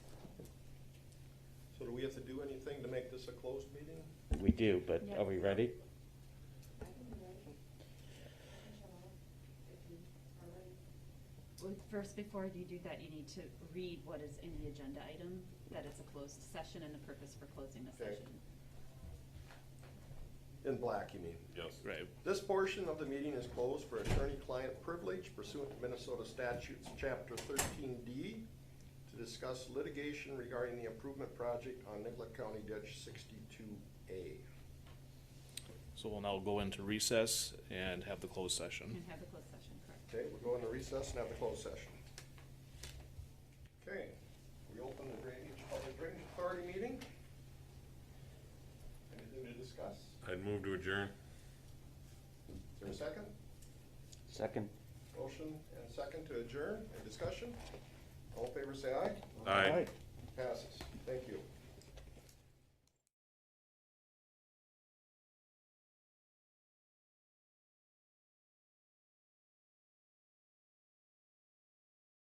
we have to do anything to make this a closed meeting? We do, but Yeah. are we ready? Well, First, before you do that, you need to read what is in the agenda item, that it's a closed session and the purpose for closing the Okay. session. In black, you mean? Yes. Right. This portion of the meeting is closed for attorney-client privilege pursuant to Minnesota statutes, chapter thirteen D, to discuss litigation regarding the improvement project on Nicollet County Ditch sixty-two A. So we'll now go into recess and have the closed And session. have the closed session, correct? Okay, we're going to recess and have the closed session. Okay, we open the drainage, public drainage authority meeting. Anything to discuss? I'd move to adjourn. Is there a second? Second. Motion and second to adjourn, any discussion? All in favor, say aye. Aye. All right.